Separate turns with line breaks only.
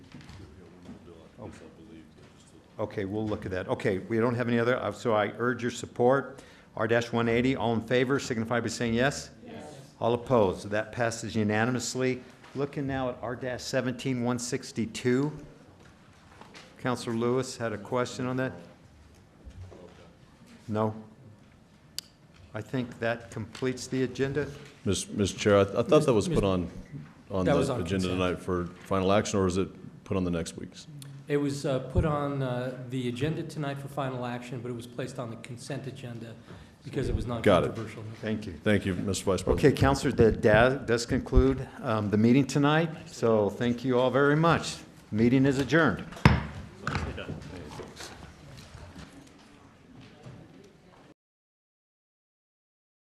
month, I believe. They're just a-
Okay, we'll look at that. Okay, we don't have any other, uh, so I urge your support. R-180, all in favor, signify by saying yes. Yes. All opposed, that passes unanimously. Looking now at R-17, 162. Counselor Lewis had a question on that? No? I think that completes the agenda.
Ms. Ms. Chair, I th- I thought that was put on, on
That was
the
on
agenda
consent.
tonight for final action, or is it put on the next week's?
It was uh, put on uh, the agenda tonight for final action, but it was placed on the consent agenda because it was
Got it.
non-controversial.
Thank you.
Thank you, Mr. Vice President.
Okay, Counselor, that da- does conclude um, the meeting tonight, so thank you all very much. Meeting is adjourned.